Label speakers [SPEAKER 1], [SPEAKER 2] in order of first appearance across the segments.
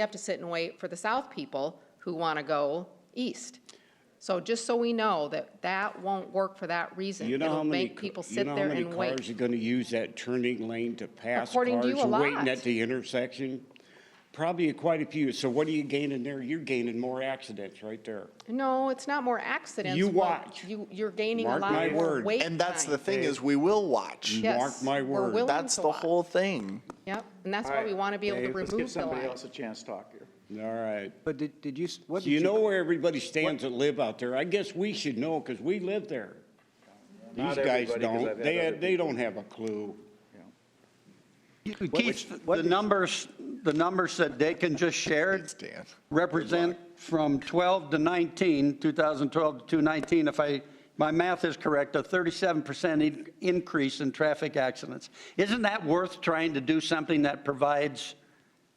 [SPEAKER 1] We have to sit and wait for the south people who want to go east. So just so we know that that won't work for that reason.
[SPEAKER 2] You know how
[SPEAKER 1] It'll
[SPEAKER 2] many,
[SPEAKER 1] make
[SPEAKER 2] ca-
[SPEAKER 1] people
[SPEAKER 2] you
[SPEAKER 1] sit
[SPEAKER 2] know how
[SPEAKER 1] there
[SPEAKER 2] many
[SPEAKER 1] and wait.
[SPEAKER 2] cars are gonna use that turning lane to pass cars
[SPEAKER 1] According to you, a lot.
[SPEAKER 2] waiting at the intersection? Probably quite a few. So what are you gaining there? You're gaining more accidents right there.
[SPEAKER 1] No, it's not more accidents.
[SPEAKER 2] You
[SPEAKER 1] but
[SPEAKER 2] watch.
[SPEAKER 1] You, you're gaining a
[SPEAKER 2] Mark my
[SPEAKER 1] lot more
[SPEAKER 2] word.
[SPEAKER 1] wait
[SPEAKER 3] And that's the
[SPEAKER 1] time.
[SPEAKER 3] thing is we will watch.
[SPEAKER 1] Yes,
[SPEAKER 2] Mark my
[SPEAKER 1] we're
[SPEAKER 2] word.
[SPEAKER 1] willing
[SPEAKER 3] That's
[SPEAKER 1] to
[SPEAKER 3] the
[SPEAKER 1] watch.
[SPEAKER 3] whole thing.
[SPEAKER 1] Yep, and that's why we want to be able to
[SPEAKER 4] Dave, Let's give
[SPEAKER 1] remove the
[SPEAKER 4] somebody
[SPEAKER 1] line.
[SPEAKER 4] else a chance to talk here.
[SPEAKER 2] All right.
[SPEAKER 5] But did, did you, s- what
[SPEAKER 2] So
[SPEAKER 5] did
[SPEAKER 2] you
[SPEAKER 5] you?
[SPEAKER 2] know where everybody stands that live out there? I guess we should know because we live there. These
[SPEAKER 4] Not
[SPEAKER 2] guys
[SPEAKER 4] everybody, 'cause I've
[SPEAKER 2] don't.
[SPEAKER 4] had
[SPEAKER 2] They,
[SPEAKER 4] other
[SPEAKER 2] they don't have a clue.
[SPEAKER 6] Keith,
[SPEAKER 5] what
[SPEAKER 6] the
[SPEAKER 5] did-
[SPEAKER 6] numbers, the numbers that Dakin just shared
[SPEAKER 3] Thanks, Dan.
[SPEAKER 6] represent from 12 to 19, 2012 to 19, if I, my math is correct, a 37% in- increase in traffic accidents. Isn't that worth trying to do something that provides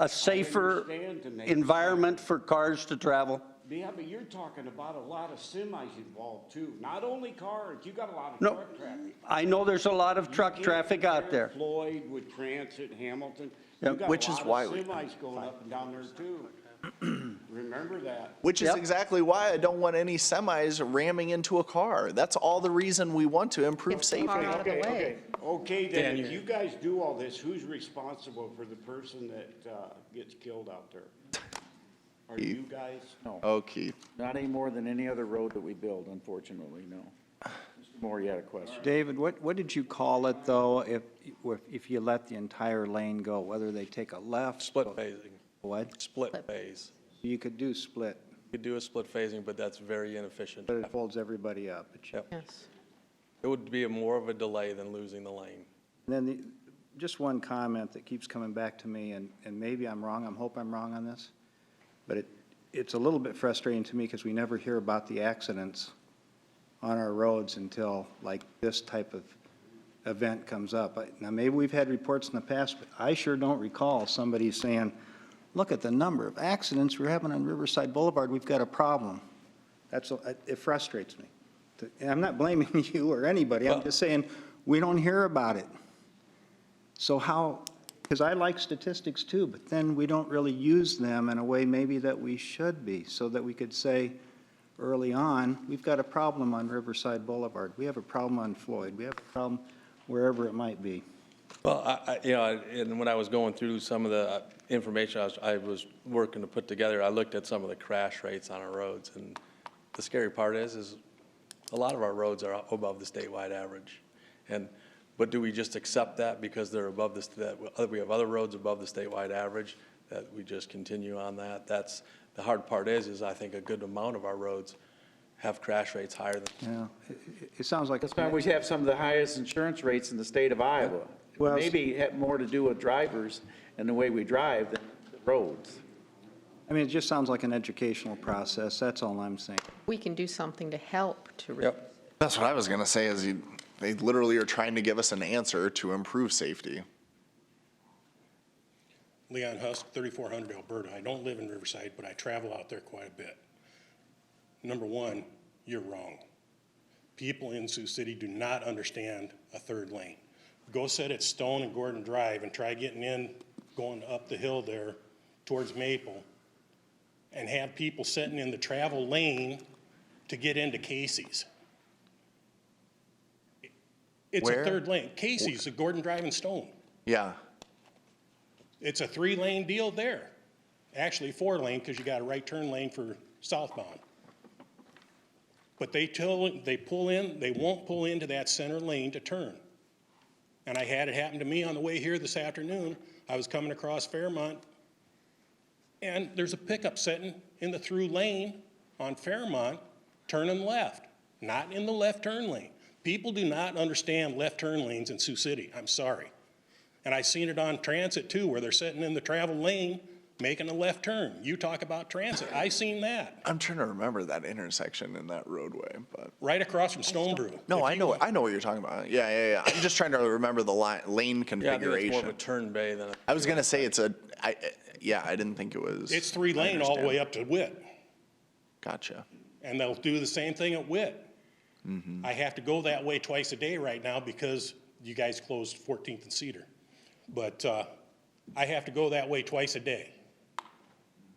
[SPEAKER 6] a safer
[SPEAKER 2] understand to make-
[SPEAKER 6] environment for cars to travel?
[SPEAKER 2] Yeah, but you're talking about a lot of semis involved too. Not only cars, you got a lot of
[SPEAKER 6] No,
[SPEAKER 2] truck traffic.
[SPEAKER 6] I know there's a lot of truck traffic out there.
[SPEAKER 2] Floyd with Transit, Hamilton.
[SPEAKER 6] Yeah,
[SPEAKER 2] You got a
[SPEAKER 3] which is
[SPEAKER 2] lot of
[SPEAKER 3] why we-
[SPEAKER 2] Semis going up and down there too. Remember that.
[SPEAKER 3] Which is
[SPEAKER 6] Yep.
[SPEAKER 3] exactly why I don't want any semis ramming into a car. That's all the reason we want to improve
[SPEAKER 1] Get the car
[SPEAKER 3] safety.
[SPEAKER 1] out of the
[SPEAKER 2] Okay,
[SPEAKER 1] way.
[SPEAKER 2] okay. Okay, then, if you guys do all this, who's responsible for the person that, uh, gets killed out there? Are you guys? No.
[SPEAKER 3] Oh, Keith.
[SPEAKER 4] Not any more than any other road that we build, unfortunately, no. Mr. Moore, you had a question.
[SPEAKER 5] David, what, what did you call it, though, if, if you let the entire lane go, whether they take a left?
[SPEAKER 7] Split
[SPEAKER 5] go-
[SPEAKER 7] phasing,
[SPEAKER 5] What?
[SPEAKER 7] split phase.
[SPEAKER 5] You could do split,
[SPEAKER 7] You could do a split phasing, but that's very inefficient.
[SPEAKER 5] but it folds everybody up. It should-
[SPEAKER 7] Yep.
[SPEAKER 1] Yes.
[SPEAKER 7] It would be a more of a delay than losing the lane.
[SPEAKER 5] Then, the- just one comment that keeps coming back to me, and, and maybe I'm wrong, I hope I'm wrong on this, but it, it's a little bit frustrating to me because we never hear about the accidents on our roads until like this type of event comes up. I- Now, maybe we've had reports in the past, but I sure don't recall somebody saying, look at the number of accidents we're having on Riverside Boulevard, we've got a problem. That's, a- it frustrates me. And I'm not blaming you or anybody, I'm just saying, we don't hear about it. So how, because I like statistics too, but then we don't really use them in a way maybe that we should be, so that we could say early on, we've got a problem on Riverside Boulevard, we have a problem on Floyd, we have a problem wherever it might be.
[SPEAKER 7] Well, I, I, you know, and when I was going through some of the uh, information I was, I was working to put together, I looked at some of the crash rates on our roads. And the scary part is, is a lot of our roads are above the statewide average. And, but do we just accept that because they're above this, that we have other roads above the statewide average? That we just continue on that? That's, the hard part is, is I think a good amount of our roads have crash rates higher than
[SPEAKER 5] Yeah, it, it- it sounds like.
[SPEAKER 4] That's why we have some of the highest insurance rates in the state of Iowa.
[SPEAKER 5] Well-
[SPEAKER 4] Maybe it had more to do with drivers and the way we drive than the roads.
[SPEAKER 5] I mean, it just sounds like an educational process, that's all I'm saying.
[SPEAKER 1] We can do something to help to. re-
[SPEAKER 7] Yep.
[SPEAKER 3] That's what I was gonna say is you, they literally are trying to give us an answer to improve safety.
[SPEAKER 8] Leon Husk, 3400 Alberta. I don't live in Riverside, but I travel out there quite a bit. Number one, you're wrong. People in Sioux City do not understand a third lane. Go sit at Stone and Gordon Drive and try getting in, going up the hill there towards Maple, and have people sitting in the travel lane to get into Casey's. It's a
[SPEAKER 3] Where?
[SPEAKER 8] third lane. Casey's, the Gordon Drive and Stone.
[SPEAKER 3] Yeah,
[SPEAKER 8] It's a three-lane deal there. Actually, four-lane, because you got a right turn lane for southbound. But they tell, they pull in, they won't pull into that center lane to turn. And I had it happen to me on the way here this afternoon. I was coming across Fairmont, and there's a pickup sitting in the through lane on Fairmont, turning left, not in the left turn lane. People do not understand left turn lanes in Sioux City. I'm sorry. And I seen it on transit too, where they're sitting in the travel lane, making a left turn. You talk about transit, I seen that,
[SPEAKER 3] I'm trying to remember that intersection in that roadway, but.
[SPEAKER 8] right across from Stone Brew.
[SPEAKER 3] No,
[SPEAKER 8] If
[SPEAKER 3] I
[SPEAKER 8] you-
[SPEAKER 3] know, I know what you're talking about. Yeah, yeah, yeah. I'm just trying to remember the line, lane
[SPEAKER 7] Yeah, I think it's more of a
[SPEAKER 3] configuration.
[SPEAKER 7] turn bay than a.
[SPEAKER 3] I was gonna say it's a, I, I- yeah, I didn't think it was.
[SPEAKER 8] It's three lane all the way up to Witt,
[SPEAKER 3] Gotcha.
[SPEAKER 8] and they'll do the same thing at Witt. I have to go that way twice a day right now because you guys closed Fourteenth and Cedar. But, uh, I have to go that way twice a day.